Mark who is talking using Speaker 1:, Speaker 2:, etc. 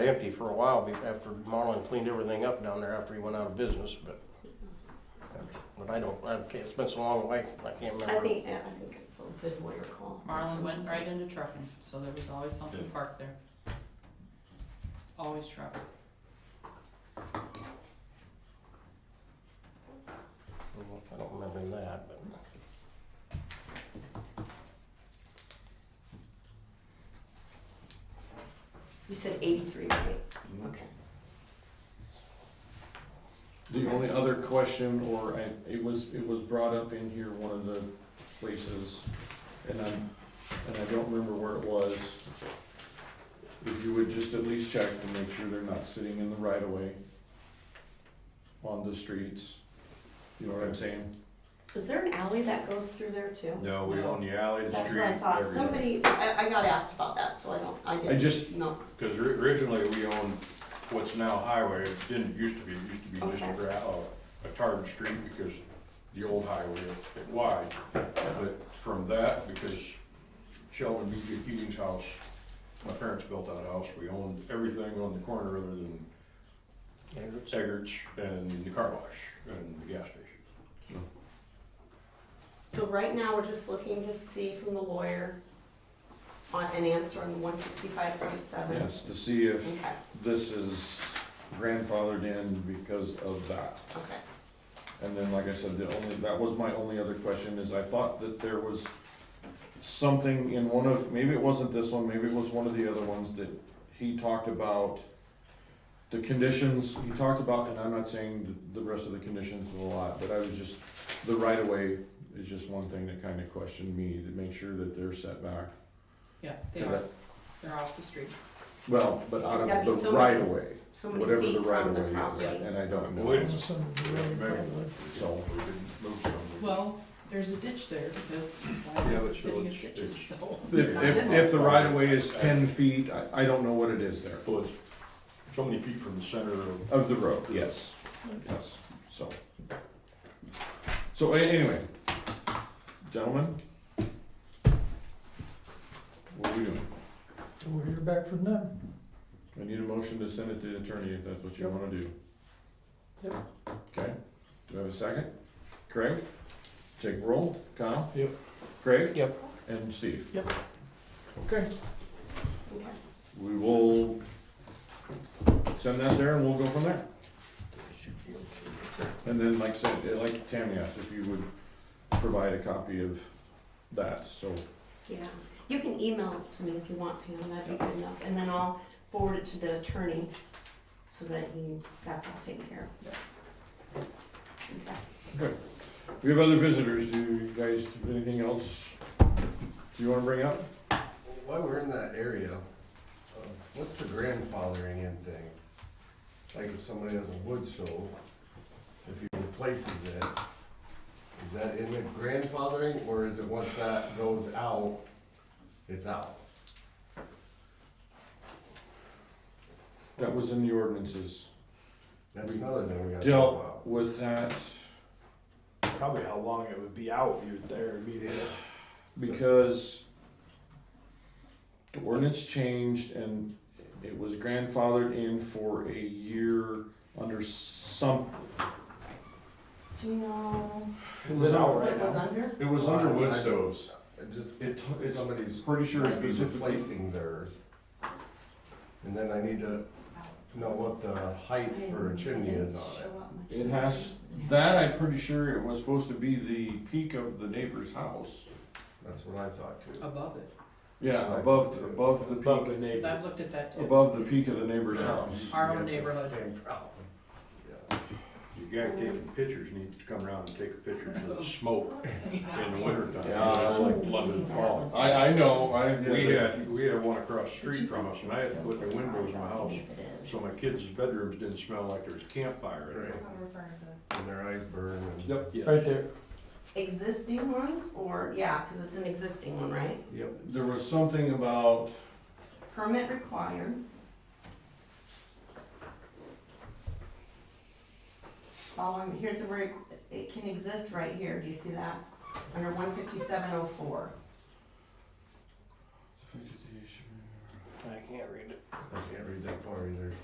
Speaker 1: empty for a while be- after Marlin cleaned everything up down there after he went out of business, but, but I don't, I can't, it's been so long, I, I can't remember.
Speaker 2: I think, yeah, I think it's a good lawyer call.
Speaker 3: Marlin went right into trucking, so there was always something parked there. Always trucks.
Speaker 1: I don't remember that, but.
Speaker 2: You said eighty-three, right? Okay.
Speaker 4: The only other question, or I, it was, it was brought up in here, one of the places, and I'm, and I don't remember where it was. If you would just at least check to make sure they're not sitting in the right of way on the streets, you know what I'm saying?
Speaker 2: Is there an alley that goes through there too?
Speaker 5: No, we own the alley, the
Speaker 2: That's
Speaker 5: street,
Speaker 2: what I thought.
Speaker 5: everything.
Speaker 2: Somebody, I, I got asked about that, so I don't, I didn't.
Speaker 4: just-
Speaker 2: No,
Speaker 5: Cause ri- originally we owned what's now highway, it didn't, used to be, it used to be just a
Speaker 2: Okay.
Speaker 5: gra, uh, a tarred street because the old highway was wide. But from that, because Sheldon B. J. Keating's house, my parents built that house, we owned everything on the corner other than
Speaker 1: Edwards?
Speaker 5: Eggert's and the car wash and the gas station.
Speaker 2: so right now, we're just looking to see from the lawyer on an answer on one sixty-five point seven.
Speaker 4: Yes, to see if
Speaker 2: Okay,
Speaker 4: this is grandfathered in because of that.
Speaker 2: okay.
Speaker 4: And then, like I said, the only, that was my only other question, is I thought that there was something in one of, maybe it wasn't this one, maybe it was one of the other ones that he talked about the conditions, he talked about, and I'm not saying the, the rest of the conditions of the lot, but I was just, the right of way is just one thing that kinda questioned me, to make sure that they're set back.
Speaker 3: Yeah, they
Speaker 4: 'Cause
Speaker 3: are.
Speaker 4: I-
Speaker 3: They're off the street.
Speaker 4: Well, but out
Speaker 2: It's gotta be
Speaker 4: of the
Speaker 2: so
Speaker 4: right
Speaker 2: many-
Speaker 4: of way,
Speaker 2: So many
Speaker 4: whatever the
Speaker 2: feet
Speaker 4: right
Speaker 2: from
Speaker 4: of
Speaker 2: the
Speaker 4: way is,
Speaker 2: property.
Speaker 4: and I don't know.
Speaker 5: Wait.
Speaker 4: So-
Speaker 5: We didn't move some.
Speaker 3: Well, there's a ditch there because
Speaker 5: Yeah,
Speaker 3: why
Speaker 5: but
Speaker 3: is it sitting in
Speaker 5: so it's-
Speaker 3: ditches? So-
Speaker 4: If, if, if the right of way is ten feet, I, I don't know what it is there.
Speaker 5: So it's so many feet from the center of
Speaker 4: Of the road, yes, yes, so. So a- anyway, gentlemen? What are we doing?
Speaker 6: So we'll hear back from them.
Speaker 4: I need a motion to send it to the attorney if that's what you
Speaker 6: Yep.
Speaker 4: wanna do.
Speaker 6: Yep.
Speaker 4: Okay, do I have a second? Craig? Take roll, Kyle?
Speaker 6: Yep.
Speaker 4: Craig?
Speaker 1: Yep.
Speaker 4: And Steve?
Speaker 6: Yep.
Speaker 4: Okay,
Speaker 2: Okay.
Speaker 4: we will send that there and we'll go from there. And then, like I said, eh, like Tammy asked, if you would provide a copy of that, so.
Speaker 2: Yeah, you can email it to me if you want, Pam, that'd be good enough, and then I'll forward it to the attorney so that he, that's all taken care of. Okay.
Speaker 4: We have other visitors, do you guys have anything else you wanna bring up?
Speaker 7: While we're in that area, uh, what's the grandfathering in thing? Like if somebody has a wood stove, if he replaces it, is that in the grandfathering or is it once that goes out, it's out?
Speaker 4: That was in the ordinances.
Speaker 7: That's another thing we gotta talk
Speaker 4: Dealt
Speaker 7: about.
Speaker 4: with that
Speaker 8: Probably how long it would be out, you're there immediately.
Speaker 4: because the ordinance changed and it was grandfathered in for a year under some,
Speaker 2: Do you know
Speaker 8: Is it out
Speaker 2: what it
Speaker 8: right
Speaker 2: was
Speaker 8: now?
Speaker 2: under?
Speaker 4: it was under wood stoves.
Speaker 7: And Just,
Speaker 4: It, it's
Speaker 7: somebody's
Speaker 4: pretty sure
Speaker 7: might be
Speaker 4: specifically
Speaker 7: replacing theirs. And then I need to know what the height for a chimney is on it.
Speaker 4: It has- That I'm pretty sure it was supposed to be the peak of the neighbor's house.
Speaker 7: That's what I thought too.
Speaker 3: Above it.
Speaker 4: Yeah, above above the
Speaker 8: Above the
Speaker 4: peak,
Speaker 3: Cause I've
Speaker 8: neighbors.
Speaker 3: looked at that too.
Speaker 4: above the peak of the neighbor's house.
Speaker 3: Our
Speaker 7: Yeah,
Speaker 3: own
Speaker 7: it's the
Speaker 3: neighborhood.
Speaker 7: Same problem, yeah.
Speaker 5: The guy taking pictures needs to come around and take a picture of the smoke in the wintertime.
Speaker 4: Yeah.
Speaker 5: It's like London fall.
Speaker 4: I I know I
Speaker 5: We had, we had one across the street from us and I had to put the windows in my house so my kids' bedrooms didn't smell like there was campfire in
Speaker 7: Right,
Speaker 5: there.
Speaker 7: and their eyes burn and.
Speaker 4: Yep.
Speaker 8: Right there.
Speaker 2: Existing ones, or, yeah, cause it's an existing one, right?
Speaker 4: There was something about
Speaker 2: Permit required. Following, here's the word, it can exist right here, do you see that? Under one fifty-seven oh four.
Speaker 1: I can't read it.
Speaker 7: I can't read
Speaker 4: get that far either.